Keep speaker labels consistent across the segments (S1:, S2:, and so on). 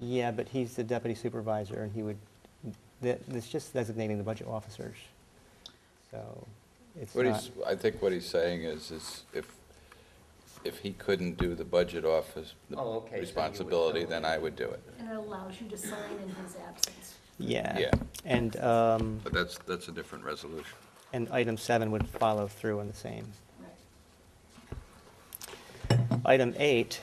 S1: Yeah, but he's the deputy supervisor, and he would, that- that's just designating the budget officers. So it's
S2: What
S1: not,
S2: he's, I think what he's saying is, is if, if he couldn't do the budget office the
S3: Oh, okay, so you would
S2: responsibility,
S3: tell
S2: then
S3: him.
S2: I would do it.
S4: And it allows you to sign in his absence.
S1: yeah.
S2: Yeah.
S1: And, um,
S2: But that's, that's a different resolution.
S1: and item seven would follow through on the same.
S4: Right.
S1: Item eight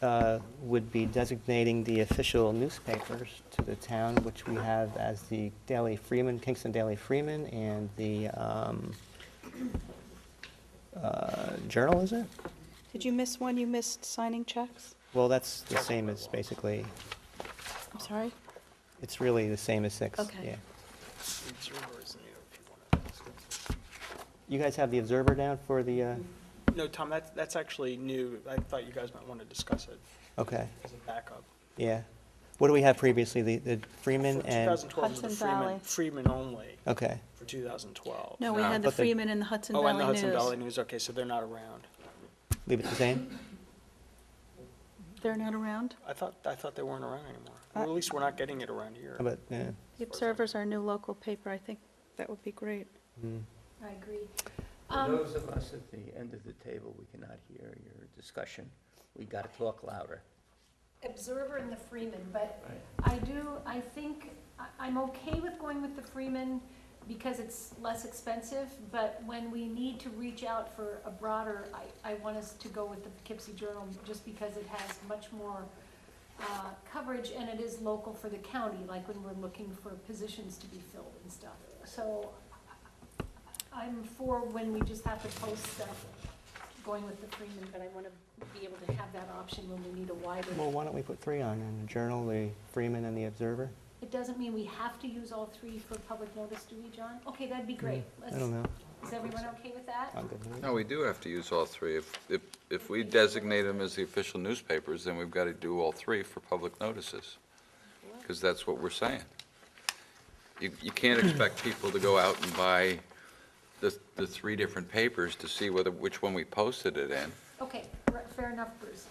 S1: uh, would be designating the official newspapers to the town, which we have as the Daily Freeman, Kingston Daily Freeman, and the um, uh, Journal, is it?
S5: Did you miss one? You missed signing checks?
S1: Well, that's the same as basically,
S5: I'm sorry?
S1: it's really the same as six.
S4: Okay.
S1: yeah. You guys have the Observer down for the, uh,
S6: No, Tom, that's, that's actually new. I thought you guys might want to discuss it
S1: okay,
S6: as a backup.
S1: yeah. What do we have previously, the the Freeman
S6: For
S1: and,
S6: 2012 was the
S5: Hudson
S6: Freeman,
S5: Valley.
S6: Freeman only
S1: okay,
S6: for 2012.
S5: No, we
S2: No.
S5: had the
S1: But the-
S5: Freeman and the Hudson
S6: Oh, and the
S5: Valley
S6: Hudson Valley
S5: News.
S6: News, okay, so they're not around.
S1: leave it the same?
S5: They're not around?
S6: I thought, I thought they weren't around anymore. Or
S5: Uh,
S6: at least we're not getting it around here.
S1: How about, yeah.
S5: The Observer's our new local paper. I think that would be great.
S1: mm.
S4: I agree.
S3: For
S4: Um,
S3: those of us at the end of the table, we cannot hear your discussion. We gotta talk louder.
S4: Observer and the Freeman, but I do, I think, I- I'm okay with going with the Freeman because it's less expensive, but when we need to reach out for a broader, I, I want us to go with the Poughkeepsie Journal just because it has much more uh, coverage and it is local for the county, like when we're looking for positions to be filled and stuff. So I- I'm for when we just have to post stuff, going with the Freeman, but I want to be able to have that option when we need a wider.
S1: Well, why don't we put three on, and the Journal, the Freeman, and the Observer?
S4: It doesn't mean we have to use all three for public notice, do we, John? Okay, that'd be great.
S1: Mm, I don't know. Um,
S4: Let's- Is everyone okay with that?
S1: I'm good with it.
S2: No, we do have to use all three. If, if, if we designate them as the official newspapers, then we've got to do all three for public notices, because that's what we're saying. You, you can't expect people to go out and buy the, the three different papers to see whether, which one we posted it in.
S4: Okay, r- fair enough, Bruce.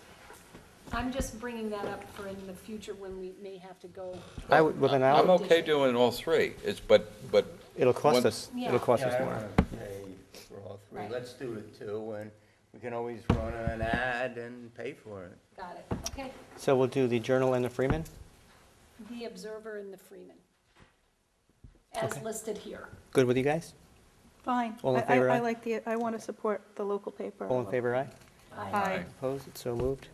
S4: I'm just bringing that up for in the future when we may have to go.
S1: I would, well, then
S2: I'm
S1: I'll,
S2: okay doing all three, it's, but, but
S1: it'll cost
S2: One-
S1: us, it'll cost
S3: Yeah,
S1: us
S3: I don't
S1: more.
S3: wanna Pay for all three.
S4: Right.
S3: Let's do the two, and we can always run an ad and pay for it.
S4: Got it, okay.
S1: So we'll do the Journal and the Freeman?
S4: The Observer and the Freeman, as
S1: Okay.
S4: listed here.
S1: Good with you guys?
S5: Fine.
S1: All in
S5: I- I-
S1: favor, aye?
S5: I like the, I want to support the local paper.
S1: All in favor, aye?
S5: Aye.
S1: Opposed, It's so moved?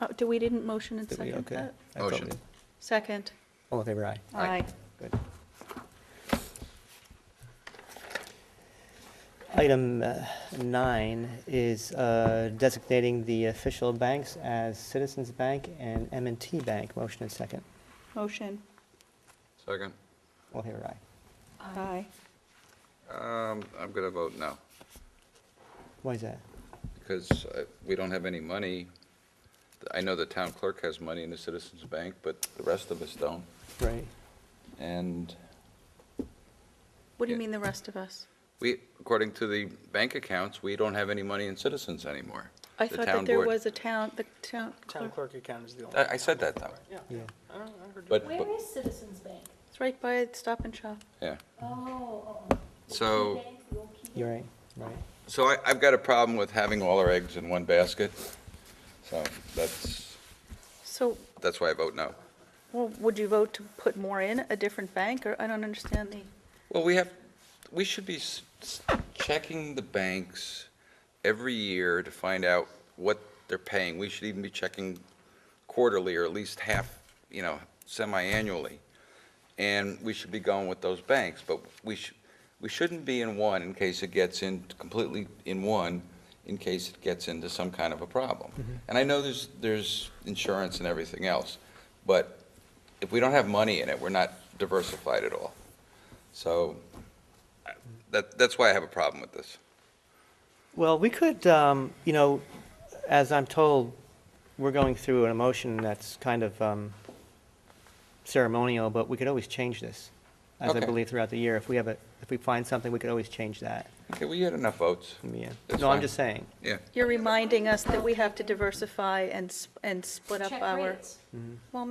S5: Oh, Do we didn't motion and
S1: Did we-
S5: second
S1: okay.
S5: that?
S1: I thought
S2: Motion.
S1: we-
S5: Second.
S1: All in favor, aye?
S2: Aye.
S1: Good. Item uh, nine is uh, designating the official banks as Citizens Bank and m and T Bank. Motion and second.
S5: Motion.
S2: Second.
S1: All in favor, aye?
S5: Aye.
S2: Um, I'm going to vote no,
S1: Why is that?
S2: because uh, we don't have any money. I know the town clerk has money in the Citizens Bank, but the rest of us don't.
S1: Right.
S2: And
S5: What do you
S2: Yeah.
S5: mean the rest of us?
S2: we, according to the bank accounts, we don't have any money in Citizens anymore.
S5: I
S2: The
S5: thought
S2: town
S5: that there
S2: board.
S5: was a town, the town
S6: Town
S5: clerk,
S6: clerk account is the only.
S2: I, I said that, though.
S6: Yeah.
S1: Yeah.
S6: I don't know, I heard you.
S2: But,
S4: Where
S2: but-
S4: is Citizens Bank?
S5: it's right by Stop and Shop.
S2: yeah.
S4: Oh, Oh, oh. The
S2: So-
S4: Key Bank, the old Key
S1: You're
S4: Bank.
S1: right, right.
S2: So I, I've got a problem with having all our eggs in one basket. So that's,
S5: So,
S2: that's why I vote no.
S5: well, would you vote to put more in, a different bank, or, I don't understand the,
S2: Well, we have, we should be s- s- checking the banks every year to find out what they're paying. We should even be checking quarterly or at least half, you know, semi-annually. And we should be going with those banks, but we should, we shouldn't be in one in case it gets in, completely in one, in case it gets into some kind of a problem. And I know there's, there's insurance and everything else, but if we don't have money in it, we're not diversified at all. So I- that, that's why I have a problem with this.
S1: Well, we could, um, you know, as I'm told, we're going through an emotion that's kind of um, ceremonial, but we could always change this, as I
S2: Okay.
S1: believe throughout the year, if we have a, if if we find something, we could always change that.
S2: Okay, well, you had enough votes.
S1: Yeah.
S2: That's
S1: No, I'm
S2: fine.
S1: just saying.
S2: Yeah.
S5: You're reminding us that we have to diversify and, sp- and split up
S4: Check
S5: our.
S4: rates.